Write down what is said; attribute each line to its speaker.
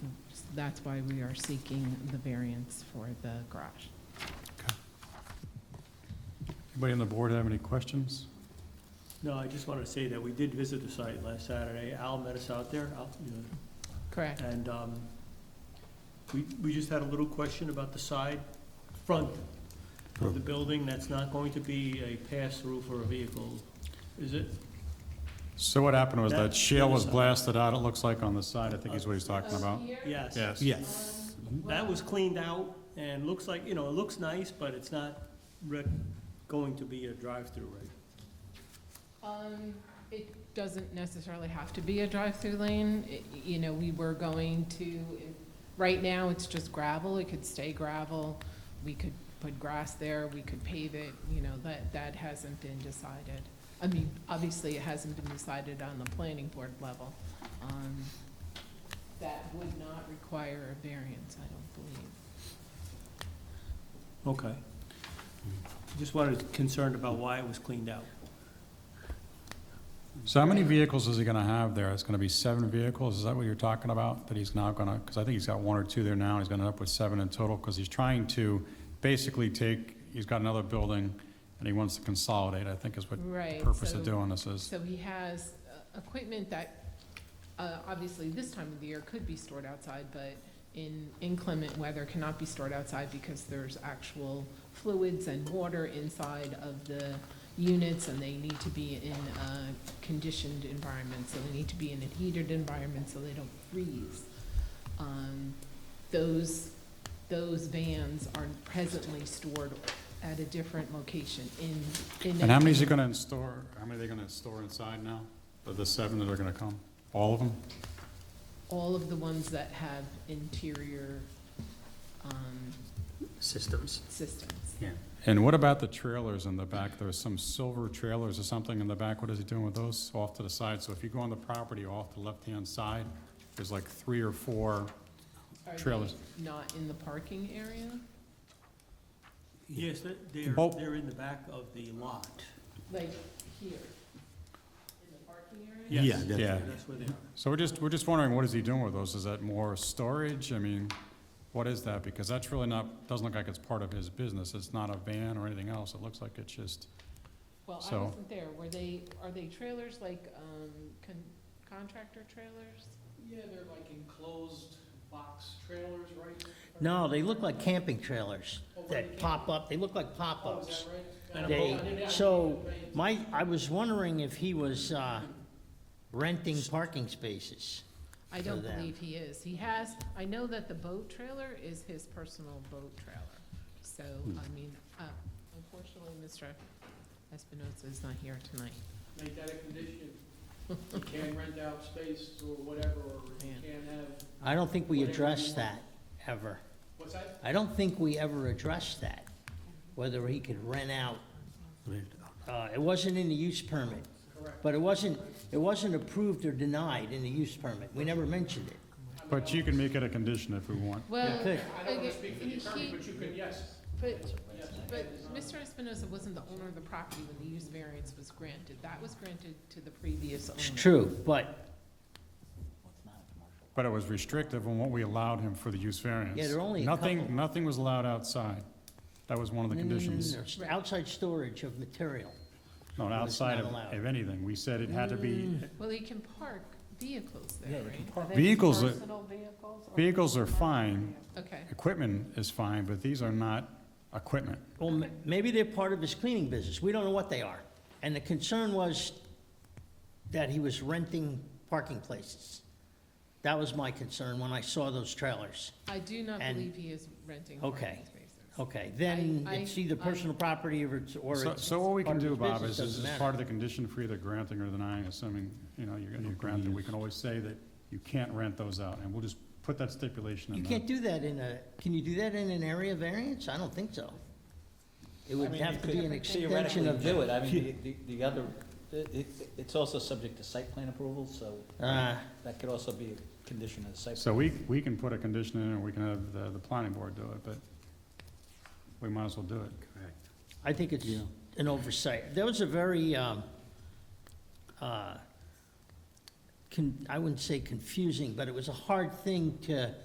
Speaker 1: that's why we are seeking the variance for the garage.
Speaker 2: Anybody on the board have any questions?
Speaker 3: No, I just wanted to say that we did visit the site last Saturday. Al met us out there, Al, you know,
Speaker 1: Correct.
Speaker 3: And um, we, we just had a little question about the side, front of the building, that's not going to be a pass-through for a vehicle, is it?
Speaker 2: So what happened was that
Speaker 3: That's
Speaker 2: shale was
Speaker 3: the side.
Speaker 2: blasted out, it looks like, on the side, I think is what he's
Speaker 1: Uh,
Speaker 2: talking about.
Speaker 3: Yes.
Speaker 2: Yes.
Speaker 4: Yes.
Speaker 3: That was cleaned out and looks like, you know, it looks nice, but it's not rec- going to be a drive-through, right?
Speaker 1: Um, it doesn't necessarily have to be a drive-through lane. It- You know, we were going to, right now, it's just gravel. It could stay gravel. We could put grass there, we could pave it, you know, that, that hasn't been decided. I mean, obviously, it hasn't been decided on the planning board level. Um, That would not require a variance, I don't believe.
Speaker 3: Okay. Just wanted, concerned about why it was cleaned out.
Speaker 2: So how many vehicles is he gonna have there? It's gonna be seven vehicles, is that what you're talking about? That he's now gonna, because I think he's got one or two there now, he's gonna end up with seven in total, because he's trying to basically take, he's got another building, and he wants to consolidate, I think is what the
Speaker 1: Right,
Speaker 2: purpose of
Speaker 1: so-
Speaker 2: doing this is.
Speaker 1: So he has uh, equipment that, uh, obviously, this time of the year could be stored outside, but in inclement weather cannot be stored outside because there's actual fluids and water inside of the units, and they need to be in a conditioned environment, so they need to be in a heated environment so they don't freeze. Um, Those, those vans are presently stored at a different location in, in.
Speaker 2: And how
Speaker 1: a-
Speaker 2: many is he gonna install, how many are they gonna store inside now? Of the seven that are gonna come? All of them?
Speaker 1: all of the ones that have interior um,
Speaker 4: Systems.
Speaker 1: systems.
Speaker 4: Yeah.
Speaker 2: And what about the trailers in the back? There's some silver trailers or something in the back. What is he doing with those off to the side? So if you go on the property off the left-hand side, there's like three or four,
Speaker 1: Are they
Speaker 2: Trailers.
Speaker 1: Not in the parking area?
Speaker 3: Yes, that- they're,
Speaker 2: Both.
Speaker 3: they're in the back of the lot.
Speaker 1: Like here? In the parking area?
Speaker 3: Yes.
Speaker 4: Yeah, definitely.
Speaker 2: yeah.
Speaker 3: That's where they are.
Speaker 2: So we're just, we're just wondering, what is he doing with those? Is that more storage? I mean, what is that? Because that's really not, doesn't look like it's part of his business. It's not a van or anything else. It looks like it's just,
Speaker 1: Well, I
Speaker 2: So-
Speaker 1: wasn't there. Were they, are they trailers like um, con- contractor trailers?
Speaker 5: Yeah, they're like enclosed box trailers, right?
Speaker 4: No, they look like camping trailers
Speaker 5: Oh, really?
Speaker 4: that pop up, they look like
Speaker 5: Oh, is
Speaker 4: pop-ups.
Speaker 5: that
Speaker 3: And
Speaker 5: right?
Speaker 3: a
Speaker 4: They,
Speaker 3: boat.
Speaker 4: so, my, I was wondering if he was, uh, renting parking spaces.
Speaker 1: I
Speaker 4: For
Speaker 1: don't
Speaker 4: them.
Speaker 1: believe he is. He has, I know that the boat trailer is his personal boat trailer. So,
Speaker 4: Hmm.
Speaker 1: I mean, uh, unfortunately, Mr. Espinosa is not here tonight.
Speaker 5: Make that a condition. You can rent out space or whatever, or you
Speaker 1: Yeah.
Speaker 5: can have,
Speaker 4: I don't think we
Speaker 5: Whatever you want.
Speaker 4: addressed that, ever.
Speaker 5: what's that?
Speaker 4: I don't think we ever addressed that, whether he could rent out. Uh, it wasn't in the use permit,
Speaker 5: Correct.
Speaker 4: but it wasn't, it wasn't approved or denied in the use permit. We never mentioned it.
Speaker 2: but you can make it a condition if we want.
Speaker 1: Well,
Speaker 4: Good.
Speaker 5: I don't want
Speaker 1: okay,
Speaker 5: to speak for the
Speaker 1: he-
Speaker 5: attorney,
Speaker 1: he-
Speaker 5: but you can, yes.
Speaker 1: But, but Mr. Espinosa wasn't the owner of the property when the use variance was granted. That was granted to the previous owner.
Speaker 4: It's true, but
Speaker 2: But it was restrictive on what we allowed him for the use variance.
Speaker 4: Yeah, there are only a couple. Mm,
Speaker 2: Nothing, nothing was allowed outside. That was one of the
Speaker 4: No, no, no, no,
Speaker 2: conditions.
Speaker 4: no, st- Outside storage of material.
Speaker 2: Not
Speaker 4: Well, it's
Speaker 2: outside
Speaker 4: not
Speaker 2: of,
Speaker 4: allowed. Mm.
Speaker 2: of anything. We said it had to be,
Speaker 1: Well, he can park vehicles there, right?
Speaker 6: Are they
Speaker 2: Vehicles are-
Speaker 6: Personal vehicles? or-
Speaker 2: vehicles are fine,
Speaker 1: Okay,
Speaker 2: equipment is fine, but these are not equipment.
Speaker 4: Well, m- maybe they're part of his cleaning business. We don't know what they are. And the concern was that he was renting parking places. That was my concern when I saw those trailers.
Speaker 1: I do not
Speaker 4: And-
Speaker 1: believe he is renting parking
Speaker 4: Okay.
Speaker 1: spaces.
Speaker 4: Okay, then
Speaker 1: I-
Speaker 4: it's either
Speaker 1: I-
Speaker 4: personal property or it's, or
Speaker 2: So,
Speaker 4: it's.
Speaker 2: so what we can
Speaker 4: part of
Speaker 2: do,
Speaker 4: his
Speaker 2: Bob,
Speaker 4: business,
Speaker 2: is, is
Speaker 4: doesn't
Speaker 2: as
Speaker 4: matter.
Speaker 2: part of the condition for either granting or denying, assuming, you know, you're gonna grant it, we can always say that you can't rent those out, and we'll just put that stipulation in
Speaker 4: You
Speaker 2: there.
Speaker 4: can't do that in a, can you do that in an area variance? I don't think so. It
Speaker 6: I
Speaker 4: would
Speaker 6: mean, you
Speaker 4: have to
Speaker 6: could
Speaker 4: be an
Speaker 6: Theoretically
Speaker 4: extension of.
Speaker 6: do it, I mean, the, the- the other, it, it- it's also subject to site plan approval, so
Speaker 4: Uh,
Speaker 6: that could also be a condition of the site.
Speaker 2: So we, we can put a condition in, or we can have the, the planning board do it, but we might as well do it.
Speaker 4: I think it's an oversight. There was a very, um, uh, con- I wouldn't say confusing, but it was a hard thing to